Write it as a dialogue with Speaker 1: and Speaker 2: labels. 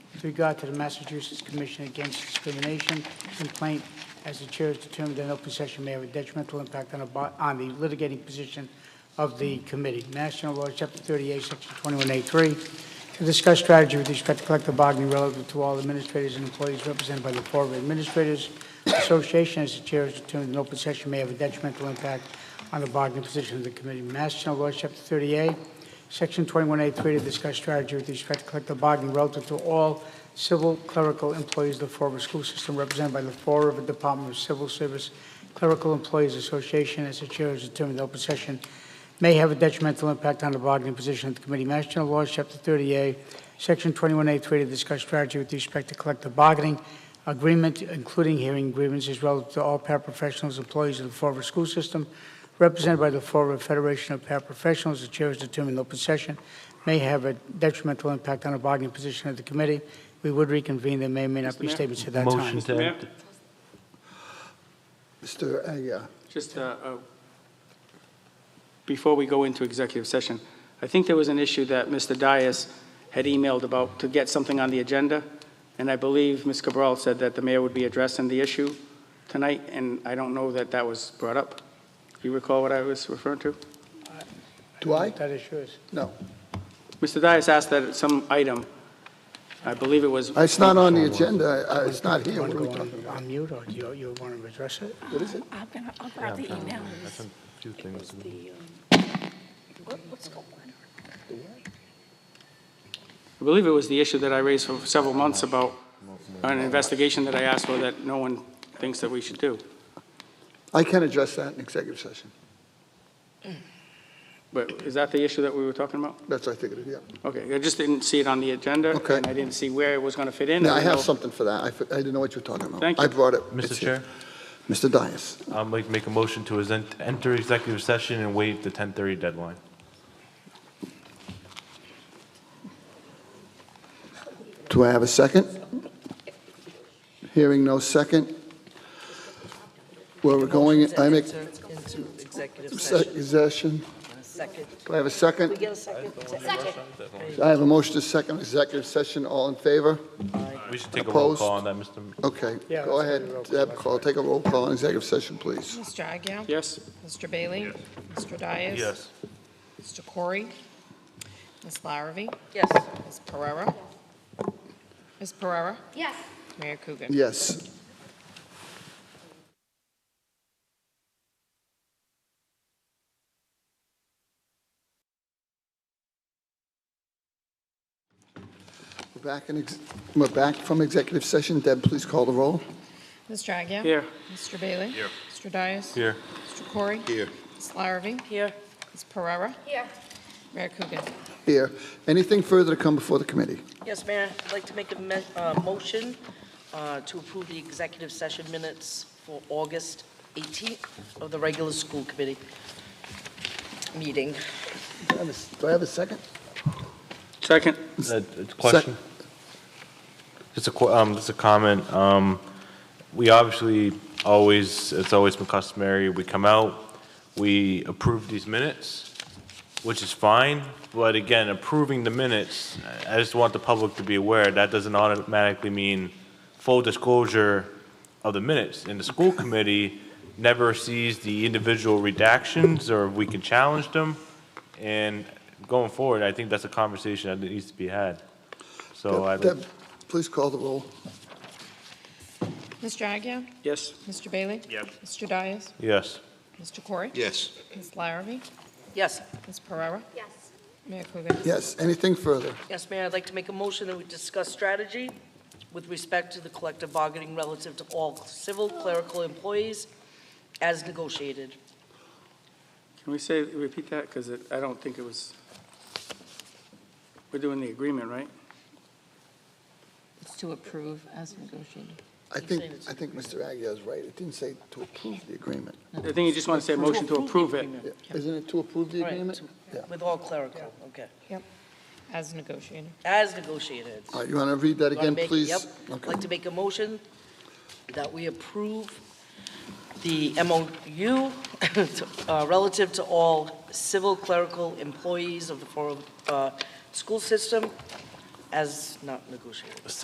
Speaker 1: with regard to the Massachusetts Commission Against Discrimination complaint, as the chair has determined that an open session may have a detrimental impact on the, bo- on the litigating position of the committee. National Law, Chapter 38, Section 21A3, to discuss strategy with respect to collective bargaining relative to all administrators and employees represented by the Board of Administrators Association, as the chair has determined an open session may have a detrimental impact on the bargaining position of the committee. National Law, Chapter 38, Section 21A3 to discuss strategy with respect to collective bargaining relative to all civil clerical employees of the Fall River School System represented by the Fall River Department of Civil Service Clerical Employees Association, as the chair has determined, the open session may have a detrimental impact on the bargaining position of the committee. Mass General Laws, Chapter 30A, Section 21A3 to discuss strategy with respect to collective bargaining agreement, including hearing grievances relative to all paraprofessionals, employees of the Fall River School System represented by the Fall River Federation of Paraprofessionals, the chair has determined the open session may have a detrimental impact on the bargaining position of the committee. We would reconvene, there may or may not be statements at that time.
Speaker 2: Motion to
Speaker 3: Mayor?
Speaker 2: act.
Speaker 4: Mr. Aguirre.
Speaker 3: Just, uh, uh, before we go into executive session, I think there was an issue that Mr. Dias had emailed about to get something on the agenda, and I believe Ms. Cabral said that the mayor would be addressing the issue tonight, and I don't know that that was brought up. Do you recall what I was referring to?
Speaker 4: Do I?
Speaker 1: That is yours.
Speaker 4: No.
Speaker 3: Mr. Dias asked that some item, I believe it was,
Speaker 4: It's not on the agenda. Uh, It's not here.
Speaker 1: Want
Speaker 4: What are
Speaker 1: to
Speaker 4: we
Speaker 1: go
Speaker 4: talking
Speaker 1: on- on mute, or do you- you want to address it?
Speaker 4: about? What is it?
Speaker 5: I'm gonna, I'll grab the email.
Speaker 2: Few things.
Speaker 5: What- What's going on?
Speaker 3: I believe it was the issue that I raised for several months about an investigation that I asked for that no one thinks that we should do.
Speaker 4: I can address that in executive session.
Speaker 3: But is that the issue that we were talking about?
Speaker 4: That's what I figured, yeah.
Speaker 3: Okay, I just didn't see it on the agenda.
Speaker 4: Okay.
Speaker 3: And I didn't see where it was going to fit in.
Speaker 4: Now, I have
Speaker 3: don't know.
Speaker 4: something for that. I fi- I didn't know what you were talking about.
Speaker 3: Thank
Speaker 4: I
Speaker 3: you.
Speaker 4: brought it.
Speaker 2: Mr.
Speaker 4: It's here.
Speaker 2: Chair,
Speaker 4: Mr. Dias.
Speaker 2: I'd like to make a motion to esen- enter executive session and waive the 10:30 deadline.
Speaker 4: Do I have a second? Hearing no second. Where we're going, I make
Speaker 6: Into executive session,
Speaker 4: executive session.
Speaker 6: second.
Speaker 4: Do I have a second?
Speaker 6: We get a second?
Speaker 4: I have a motion to second executive session. All in favor?
Speaker 2: We should take a roll
Speaker 4: Opposed?
Speaker 2: call on that, Mr. M-
Speaker 4: Okay.
Speaker 1: Yeah,
Speaker 4: Go
Speaker 1: let's do
Speaker 4: ahead,
Speaker 1: the roll call.
Speaker 4: Deb, call, take a roll call on executive session, please.
Speaker 7: Mr. Agia?
Speaker 3: Yes?
Speaker 7: Mr. Bailey? Mr. Dias?
Speaker 2: Yes.
Speaker 7: Mr. Corey? Ms. Larrabee?
Speaker 6: Yes.
Speaker 7: Ms. Pereira? Ms. Pereira?
Speaker 8: Yes.
Speaker 7: Mayor Coogan?
Speaker 4: Yes. We're back in, ex- we're back from executive session. Deb, please call the roll.
Speaker 7: Mr. Agia?
Speaker 3: Here.
Speaker 7: Mr. Bailey? Here. Mr. Dias?
Speaker 2: Here.
Speaker 7: Mr. Corey? Here. Ms. Larrabee?
Speaker 6: Here.
Speaker 7: Ms. Pereira?
Speaker 8: Here.
Speaker 7: Mayor Coogan?
Speaker 4: Here. Anything further to come before the committee?
Speaker 6: Yes, Mayor, I'd like to make a me- uh, motion uh, to approve the executive session minutes for August 18th of the regular school committee meeting.
Speaker 4: Do I have a- do I have a second?
Speaker 3: Second?
Speaker 2: Uh, it's a Question? Just a, qu- um, just a comment. Um, we obviously always, it's always been customary, we come out, we approve these minutes, which is fine, but again, approving the minutes, I I just want the public to be aware, that doesn't automatically mean full disclosure of the minutes. And the school committee never sees the individual redactions, or we can challenge them. And going forward, I think that's a conversation that needs to be had. So Oh, I.
Speaker 4: Deb, please call the roll.
Speaker 7: Mr. Agia?
Speaker 3: Yes?
Speaker 7: Mr. Bailey? Yes. Mr. Dias?
Speaker 2: Yes.
Speaker 7: Mr. Corey?
Speaker 9: Yes.
Speaker 7: Ms. Larrabee?
Speaker 6: Yes,
Speaker 7: Ms. Pereira?
Speaker 8: Yes.
Speaker 7: Mayor Coogan?
Speaker 4: Yes. Anything further?
Speaker 6: yes, Mayor, I'd like to make a motion that we discuss strategy with respect to the collective bargaining relative to all civil clerical employees as negotiated.
Speaker 3: Can we say, repeat that? Because I don't think it was, we're doing the agreement, right?
Speaker 10: It's to approve as negotiated.
Speaker 4: I think, I think Mr. Aguirre is right. It didn't say to approve the agreement.
Speaker 3: I think you just want to say motion to approve it.
Speaker 4: Yeah. Isn't it to approve the
Speaker 6: Right,
Speaker 4: agreement?
Speaker 6: to-
Speaker 4: Yeah.
Speaker 6: With all clerical, okay.
Speaker 7: As negotiated.
Speaker 6: As negotiated.
Speaker 4: All right, you want to read that
Speaker 6: You wanna
Speaker 4: again,
Speaker 6: make it-
Speaker 4: please?
Speaker 6: Yep. I'd
Speaker 4: Okay.
Speaker 6: like to make a motion that we approve the MOU to- uh, relative to all civil clerical employees of the Fall River, uh, school system as not negotiated.